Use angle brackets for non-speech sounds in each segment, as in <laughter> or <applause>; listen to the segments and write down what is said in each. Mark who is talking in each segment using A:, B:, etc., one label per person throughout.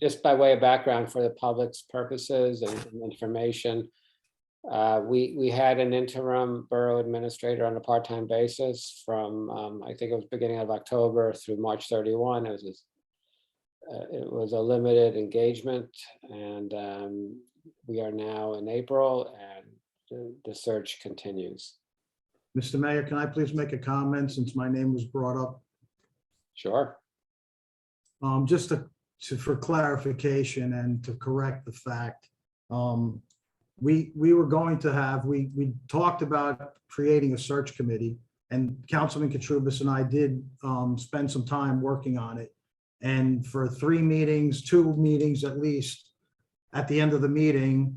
A: just by way of background for the public's purposes and information. Uh, we, we had an interim borough administrator on a part-time basis from, um, I think it was beginning of October through March thirty-one. It was his- uh, it was a limited engagement and, um, we are now in April and the, the search continues.
B: Mr. Mayor, can I please make a comment since my name was brought up?
A: Sure.
B: Um, just to, to, for clarification and to correct the fact, um, we, we were going to have, we, we talked about creating a search committee. And Councilman Katrubis and I did, um, spend some time working on it. And for three meetings, two meetings at least, at the end of the meeting,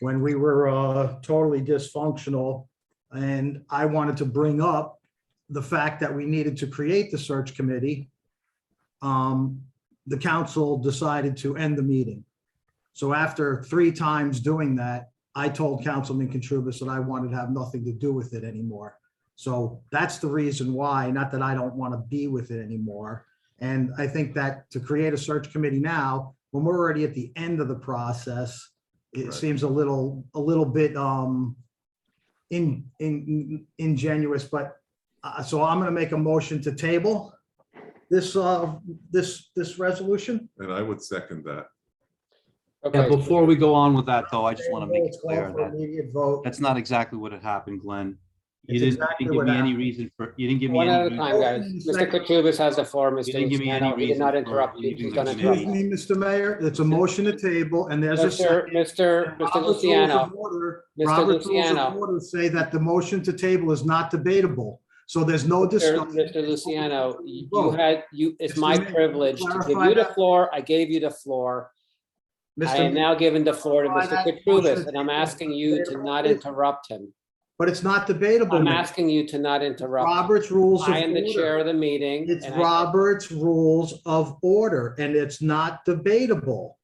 B: when we were, uh, totally dysfunctional. And I wanted to bring up the fact that we needed to create the search committee um, the council decided to end the meeting. So after three times doing that, I told Councilman Katurbis that I wanted to have nothing to do with it anymore. So that's the reason why, not that I don't want to be with it anymore. And I think that to create a search committee now, when we're already at the end of the process, it
C: Right.
B: seems a little, a little bit um in, in, ingenuous, but uh, so I'm going to make a motion to table this, uh, this, this resolution.
C: And I would second that.
D: Yeah,
A: Okay.
D: before we go on with that, though, I just want to make it
B: Let's call
D: clear
B: for
D: that
B: Immediate vote.
D: that's not exactly what had happened, Glenn. You
B: It's
D: didn't you
B: exactly
D: didn't give
B: what
D: me any
B: happened.
D: reason for, you didn't give me
A: One at a
D: any,
A: time, guys. Mr. Katurbis has the floor, Mr.
D: You didn't give me any
A: Luciano. He did not
D: reason for
A: interrupt you.
D: leaving
A: He's
D: the
A: gonna
D: committee.
A: interrupt
B: Excuse
A: you.
B: me, Mr. Mayor, it's a motion to table and there's a
A: Mr.
B: second.
A: Mr. Mr.
B: Robert's rules
A: Luciano.
B: of order-
A: Mr.
B: Robert's rules of
A: Luciano.
B: order Say that the motion to table is not debatable, so there's no
A: Sir,
B: discussion.
A: Mr. Luciano, you you
B: Vote.
A: had, you, it's
B: Mr.
A: my
B: Mayor,
A: privilege to give
B: clarify
A: you the
B: that.
A: floor. I gave you the floor. I am
B: Mr.
A: now giving the floor to Mr.
B: Clarify that
A: Katrubis,
B: motion.
A: and I'm asking you to not interrupt him.
B: But it's not debatable.
A: I'm
B: Mayor.
A: asking you to not interrupt. him.
B: Robert's rules of
A: I am the chair
B: order.
A: of the meeting.
B: It's
A: and I-
B: Robert's rules of order and it's not debatable.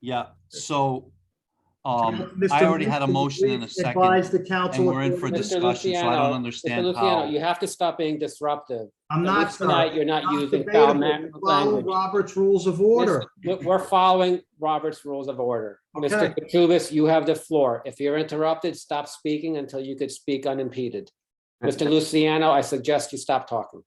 D: yeah, so um,
B: Mr.
D: I already had a
B: Luciano,
D: motion and a
B: please Advise
D: second.
B: the council.
D: and we're in for
B: accordingly.
A: Mr.
D: discussion, so I don't
A: Luciano,
D: understand
A: Mr. Luciano,
D: how-
A: you have to stop being disruptive.
B: I'm
A: At
B: not,
A: least Tonight,
B: sir.
A: you're not
B: Not
A: using foul
B: debatable.
A: ma-
B: We Follow
A: language.
B: Robert's rules of order.
A: We're we're following Robert's rules of order. Mr.
B: Okay.
A: Katrubis, you have the floor. If you're interrupted, stop speaking until you could speak unimpeded. Mr. Luciano, I suggest you stop talking.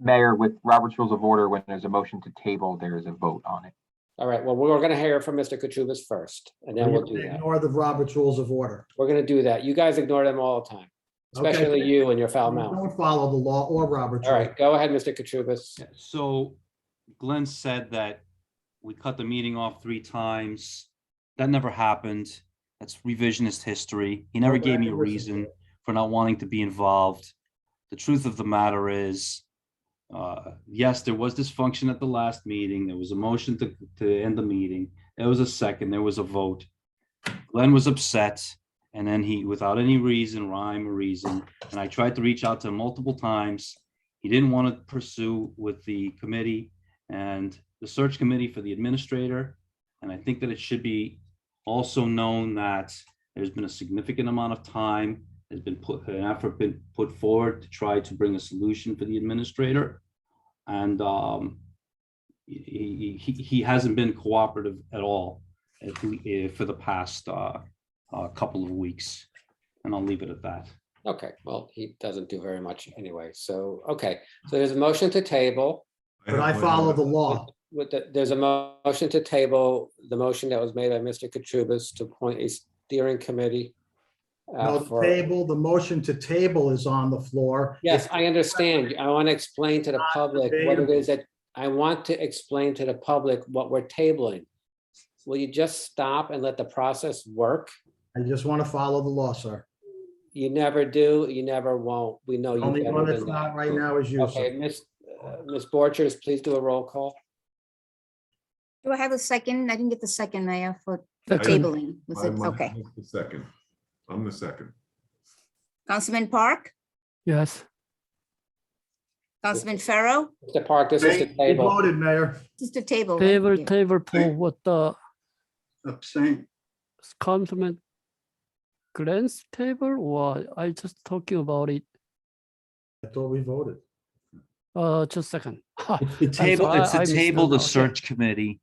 E: Mayor, with Robert's Rules of Order, when there's a motion to table, there is a vote on it.
A: All right, well, we're going to hear from Mr. Katrubis first, and then we'll do that.
B: Ignore the Robert's rules of order.
A: We're going to do that. You guys ignore them all the time,
B: Okay.
A: especially you and your foul mouth.
B: Don't follow the law or Robert's.
A: All
B: rules.
A: right, go ahead, Mr. Katrubis.
D: So Glenn said that we cut the meeting off three times. That never happened. That's revisionist history. He never gave me a reason for not wanting to be involved. The truth of the matter is, uh, yes, there was dysfunction at the last meeting. There was a motion to, to end the meeting. There was a second, there was a vote. Glenn was upset and then he, without any reason, rhyme or reason, and I tried to reach out to him multiple times. He didn't want to pursue with the committee and the search committee for the administrator. And I think that it should be also known that there's been a significant amount of time has been put, an effort been put forward to try to bring a solution for the administrator. And um, he, he, he- he hasn't been cooperative at all if we- eh, for the past uh, uh, couple of weeks. And I'll leave it at that.
A: Okay, well, he doesn't do very much anyway, so, okay. So there's a motion to table.
B: But
C: have
B: I
C: my
B: follow
C: hand
B: the
C: up.
B: law.
A: With the, there's a mo- motion to table, the motion that was made by Mr. Katrubis to appoint a steering committee. uh,
B: No, the
A: for-
B: table, the motion to table is on the floor.
A: Yes, I understand. I want to explain to the
B: Not
A: public what it
B: debatable.
A: is that, I want to explain to the public what we're tabling. Will you just stop and let the process work?
B: I just want to follow the law, sir.
A: You never do, you never won't. We know you.
B: Only
A: better
B: one that's
A: than that.
B: not right now is you,
A: Okay,
B: sir.
A: Miss uh, Miss Borchers, please do a roll call.
F: Do I have a second? I didn't get the second, Mayor, for for
C: I didn't-
F: tabling. Was it,
C: I'm on-
F: okay.
C: I'm the Second, I'm the second.
F: Councilman Park,
G: Yes,
F: Councilman Farrow,
A: Mr. Park, this is the
B: You
A: table.
B: voted, Mayor.
F: just a table. right?
G: favor,
F: Yeah. <laughs>
G: favor poll with the
H: abstain.
G: Councilman Glenn's table or I just talking about it,
B: I thought
A: <laughs>
B: we voted.
G: uh, just second. <laughs> Ha,
D: It's to
G: I'm
D: table,
G: sorry,
D: it's
G: I
D: to
G: missed
D: table
G: that.
D: the
G: Okay.
D: search committee